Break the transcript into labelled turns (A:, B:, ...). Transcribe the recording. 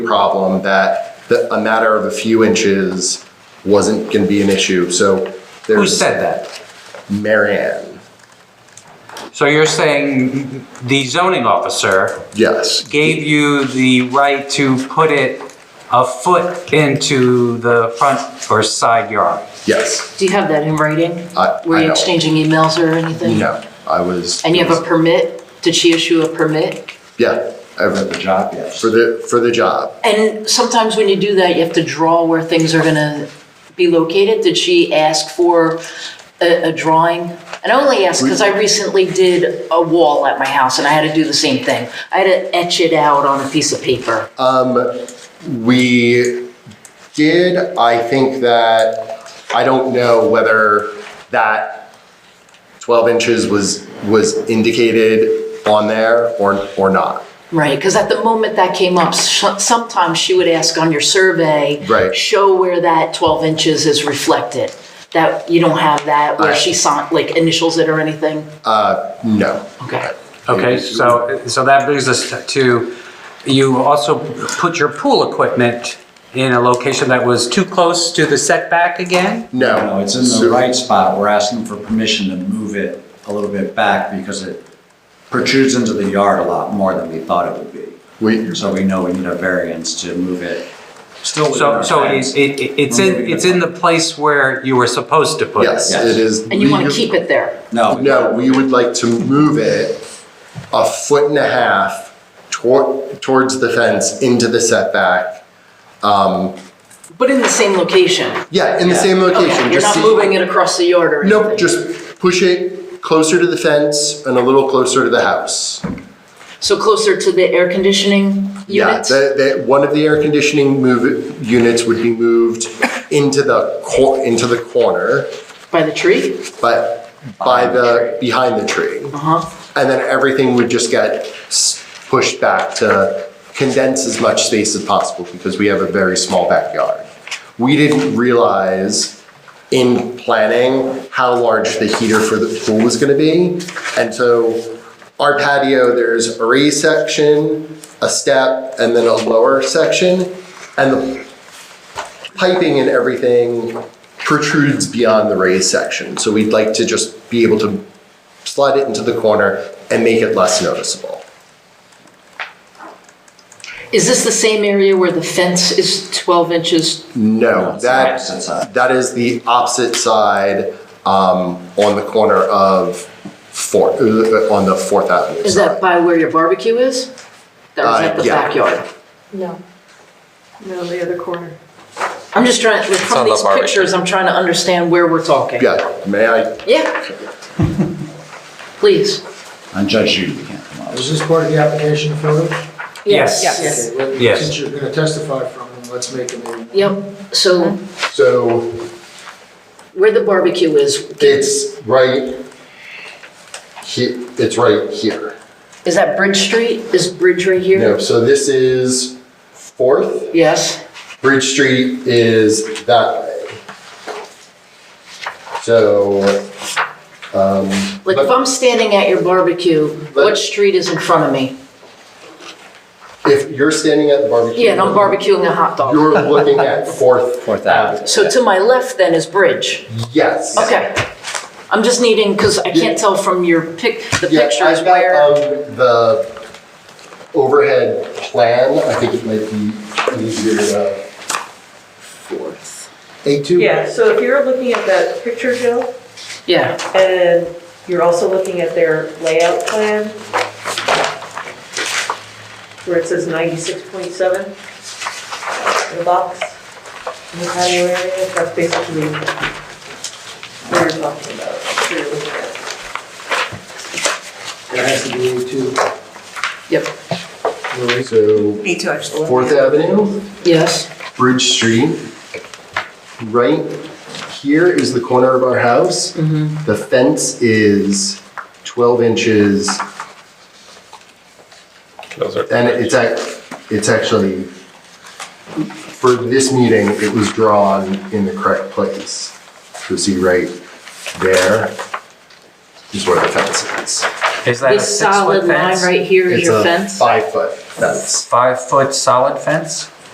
A: problem that the, a matter of a few inches wasn't gonna be an issue, so
B: Who
A: there's
B: said that?
A: Marianne.
B: So you're saying the zoning officer
A: Yes,
B: gave you the right to put it a foot into the front or side yard?
A: yes,
C: Do you have that in writing?
A: I,
C: Were
A: I
C: you
A: know.
C: exchanging emails or anything?
A: No, I was.
C: And you have a permit? Did she issue a permit?
A: Yeah,
D: For
A: I-
D: the job, yes.
A: for the, for the job.
C: And sometimes when you do that, you have to draw where things are gonna be located. Did she ask for a, a drawing? And I only ask because I recently did a wall at my house and I had to do the same thing. I had to etch it out on a piece of paper.
A: We did, I think that, I don't know whether that 12 inches was, was indicated on there or, or not.
C: Right, because at the moment that came up, sh- sometimes she would ask on your survey.
A: Right.
C: Show where that 12 inches is reflected. That, you don't have that where
A: I-
C: she signed, like initials it or anything?
A: No.
C: Okay.
B: Okay, so, so that brings us to, you also put your pool equipment in a location that was too close to the setback again?
A: No.
D: No, it's in
A: So-
D: the right spot. We're asking for permission to move it a little bit back because it protrudes into the yard a lot more than we thought it would be.
A: We,
D: So we know we need a variance to move it. Still within
B: So,
D: our
B: so it,
D: bounds.
B: it, it's in, it's in the place where you were supposed to put it?
A: yes, it is.
C: And you want
A: we-
C: to keep it there?
D: No.
A: No, we would like to move it a foot and a half toward, towards the fence into the setback.
C: But in the same location?
A: Yeah, in the same location.
C: Okay, You're
A: just
C: not
A: see-
C: moving it across the yard or anything?
A: Nope, just push it closer to the fence and a little closer to the house.
C: So closer to the air conditioning
A: Yeah,
C: unit?
A: that, that, one of the air conditioning move, units would be moved into the cor, into the corner,
C: By the tree?
A: but by the, behind the tree.
C: Uh-huh.
A: And then everything would just get s- pushed back to condense as much space as possible because we have a very small backyard. We didn't realize in planning how large the heater for the pool was gonna be. And so our patio, there's a raised section, a step, and then a lower section. And the piping and everything protrudes beyond the raised section. So we'd like to just be able to slide it into the corner and make it less noticeable.
C: Is this the same area where the fence is 12 inches?
A: No,
D: it's the opposite
A: that,
D: side.
A: that is the opposite side, um, on the corner of Fourth, uh, on the Fourth Avenue
C: Is that
A: side.
C: by where your barbecue is? That was
A: Uh,
C: at the
A: yeah.
C: backyard?
E: No. No, the other corner.
C: I'm just trying, like,
F: on
C: from
F: the
C: these
F: barbecue.
C: pictures, I'm trying to understand where we're talking.
A: Yeah, may I,
C: Yeah. Please.
D: On Judge Judy, you can't come up.
G: Is this part of the application photos?
B: Yes.
E: Yes.
G: Okay, well,
B: Yes.
G: Since you're gonna testify from them, let's make them. a-
C: Yep,
E: Uh-huh.
C: so
A: so
C: where the barbecue is,
A: it's right he, it's right here.
C: is that Bridge Street? Is Bridge right
A: No,
C: here?
A: so this is Fourth,
C: Yes,
A: Bridge Street is that way. So, um.
C: like if I'm standing at your barbecue, what
A: But-
C: street is in front of me?
A: If you're standing at the barbecue.
C: Yeah, and I'm barbecuing a hot dog.
A: You're looking at Fourth.
D: Fourth Avenue.
C: So to my left then is Bridge.
A: Yes.
C: Okay. I'm just needing, because I
A: Yeah.
C: can't tell from your pic, the
A: Yeah,
C: pictures
A: I've got,
C: where.
A: um, The overhead plan, I think it might be easier to. Fourth. A two?
E: Yeah, so if you're looking at that picture, Jill,
C: Yeah,
E: and you're also looking at their layout plan, where it says 96.7 in the box, in the patio area, that's basically what you're talking about, what you're looking at.
G: There has to be a two.
C: yep,
A: So
E: Me too, I just.
A: Fourth Avenue,
C: yes.
A: Bridge Street. Right here is the corner of our house. The fence is twelve inches
F: Those are.
A: And it's ac it's actually, for this meeting, it was drawn in the correct place. So see right there is where the fence is.
B: Is that a
C: This
B: six-foot
C: solid line
B: fence?
C: right here is
A: It's
C: your
A: a
C: fence?
A: five foot fence.
B: Five-foot solid fence?